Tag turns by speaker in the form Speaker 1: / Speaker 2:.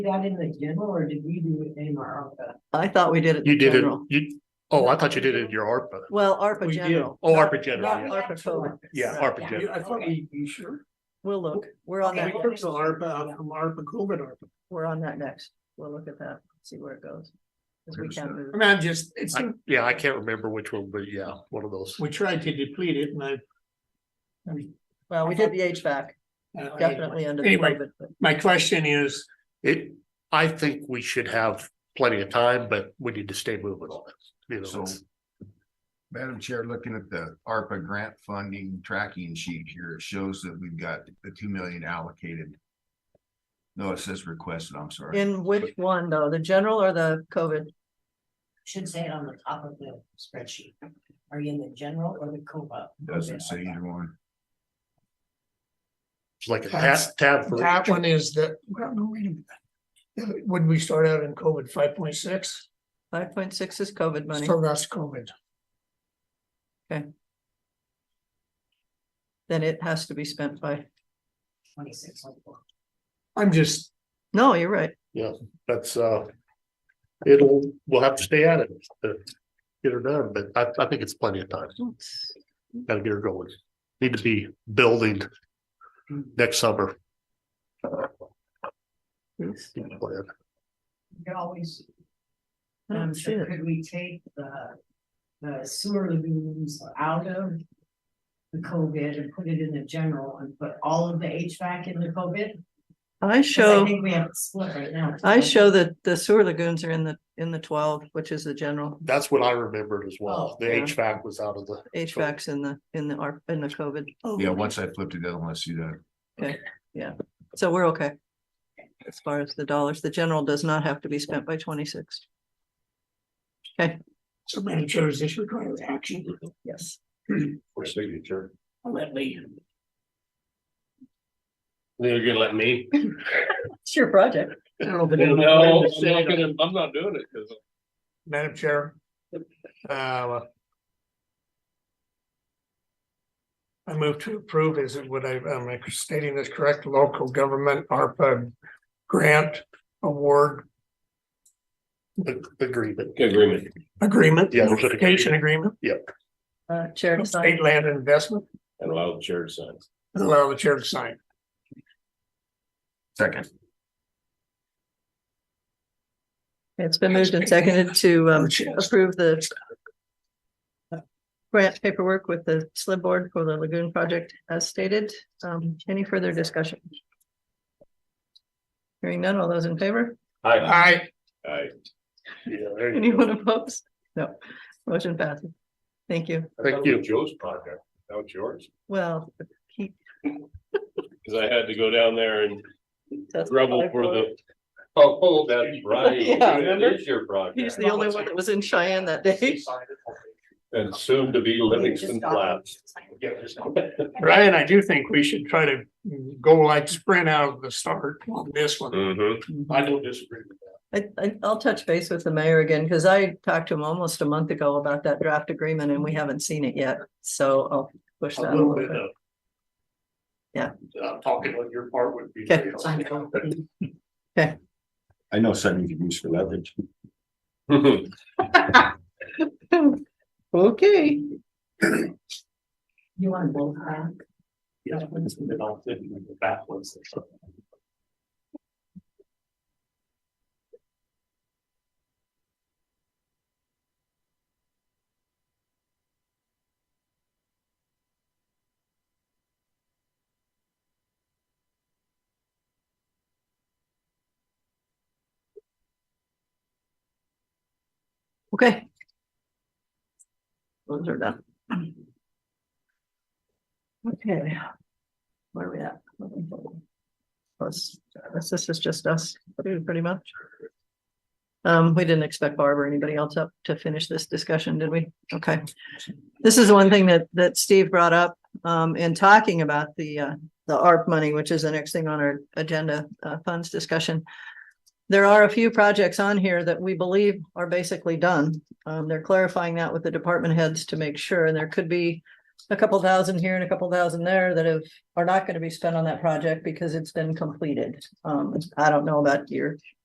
Speaker 1: that in the general or did we do it in our ARPA?
Speaker 2: I thought we did it.
Speaker 3: You
Speaker 2: in
Speaker 3: did it,
Speaker 2: general.
Speaker 3: you, oh, I thought you did it in your ARPA.
Speaker 2: Well, ARPA
Speaker 4: We did.
Speaker 2: general.
Speaker 3: Oh,
Speaker 2: Not-
Speaker 3: ARPA general,
Speaker 2: Not
Speaker 3: yeah.
Speaker 2: ARPA code.
Speaker 3: Yeah, ARPA
Speaker 4: You-
Speaker 3: general.
Speaker 4: I thought we, you sure?
Speaker 2: We'll look. We're on
Speaker 1: Okay.
Speaker 4: We
Speaker 2: that.
Speaker 4: took the ARPA, from ARPA, COVID ARPA.
Speaker 2: We're on that next. We'll look at that, see where it goes. Cause we can't move.
Speaker 4: I mean, I'm just, it's,
Speaker 3: I- Yeah, I can't remember which one, but yeah, one of those.
Speaker 4: we tried to deplete it and I.
Speaker 2: Well, we did the HVAC,
Speaker 4: I-
Speaker 2: definitely under
Speaker 4: Anyway.
Speaker 2: COVID, but
Speaker 4: uh, My question is,
Speaker 3: It, I think we should have plenty of time, but we need to stay moving on it. You know,
Speaker 5: So,
Speaker 3: it's-
Speaker 5: Madam Chair, looking at the ARPA grant funding tracking sheet here, it shows that we've got the two million allocated. No, it says requested, I'm sorry.
Speaker 2: in which one though, the general or the COVID?
Speaker 1: Should say it on the top of the spreadsheet. Are you in the general or the COBA?
Speaker 5: Doesn't say either one.
Speaker 3: It's like a tab, tab for,
Speaker 4: that one is the, well, no, wait a minute. When we start out in COVID, five point six,
Speaker 2: Five point six is COVID money.
Speaker 4: so that's COVID.
Speaker 2: Then it has to be spent by,
Speaker 1: Twenty-six oh four.
Speaker 4: I'm just,
Speaker 2: no, you're right.
Speaker 3: that's, uh, it'll, we'll have to stay at it to get her done, but I, I think it's plenty of time. Gotta get her going. Need to be building next summer. Plan.
Speaker 1: You could always. um,
Speaker 2: I don't see it.
Speaker 1: Could we take the, the sewer lagoons out of the COVID and put it in the general and put all of the HVAC in the COVID? 'Cause
Speaker 2: I
Speaker 1: I
Speaker 2: show,
Speaker 1: think we have it split right now.
Speaker 2: I show that the sewer lagoons are in the, in the twelve, which is the general.
Speaker 3: That's what I remembered as well.
Speaker 1: Oh,
Speaker 3: The
Speaker 2: yeah.
Speaker 3: HVAC was out of the.
Speaker 2: HVAC's in the, in the, ARP in the COVID.
Speaker 5: Yeah,
Speaker 4: oh,
Speaker 5: once I flipped it, I want to see that.
Speaker 2: So we're okay. As far as the dollars, the general does not have to be spent by twenty-six.
Speaker 4: so many chairs, this requires action.
Speaker 2: Yes.
Speaker 3: For signature.
Speaker 4: I'll let Lee.
Speaker 6: They're gonna let me?
Speaker 2: It's your project.
Speaker 4: I don't know if it is-
Speaker 6: No, I'm not gonna, I'm not doing it, cause
Speaker 4: Madam Chair. uh, I move to approve, is it, would I, am I stating this correct, local government ARPA grant award
Speaker 3: Agreement.
Speaker 6: agreement.
Speaker 4: agreement?
Speaker 3: Yeah, there's an agreement.
Speaker 4: Notification agreement,
Speaker 2: Uh, Chair to sign.
Speaker 4: state land investment,
Speaker 6: And allow the chair to sign.
Speaker 4: and allow the chair to sign.
Speaker 5: Second.
Speaker 2: It's been moved and seconded to um approve the grant paperwork with the slip board for the lagoon project as stated. Um, any further discussion? Hearing none, all those in favor?
Speaker 6: Aye.
Speaker 4: I,
Speaker 6: Aye.
Speaker 3: Yeah, there you
Speaker 2: Anyone
Speaker 3: go.
Speaker 2: opposed? No, motion passes. Thank you.
Speaker 3: Thank you.
Speaker 6: Joe's project, that was yours.
Speaker 2: Well, he
Speaker 6: Cause I had to go down there and
Speaker 2: does.
Speaker 6: rebel for the. Oh, that's right.
Speaker 2: Yeah, remember?
Speaker 6: It is your
Speaker 2: He's
Speaker 6: project.
Speaker 2: the only one that was in Cheyenne that day.
Speaker 6: And soon to be Livingston Flats.
Speaker 4: Ryan, I do think we should try to go like sprint out of the start on this one.
Speaker 6: Mm-hmm.
Speaker 3: I don't disagree with that.
Speaker 2: I, I, I'll touch base with the mayor again, because I talked to him almost a month ago about that draft agreement and we haven't seen it yet, so I'll push that.
Speaker 3: A
Speaker 2: a
Speaker 3: little
Speaker 2: little
Speaker 3: bit
Speaker 2: bit.
Speaker 3: of.
Speaker 2: Yeah.
Speaker 3: Uh, talking on your part would be.
Speaker 2: Okay.
Speaker 3: great.
Speaker 1: I know.
Speaker 5: I know something you can use for leverage.
Speaker 2: Okay,
Speaker 1: You want both back?
Speaker 3: Yeah, it's been all good, we go backwards.
Speaker 2: okay. Those are done. Okay. Where are we at? Plus, this is just us, pretty much. Um, we didn't expect Barb or anybody else up to finish this discussion, did we? Okay. This is one thing that, that Steve brought up, um, in talking about the, uh, the ARP money, which is the next thing on our agenda, uh, funds discussion. There are a few projects on here that we believe are basically done. Um, they're clarifying that with the department heads to make sure, and there could be a couple thousand here and a couple thousand there that have, are not gonna be spent on that project because it's been completed. Um, I don't know about your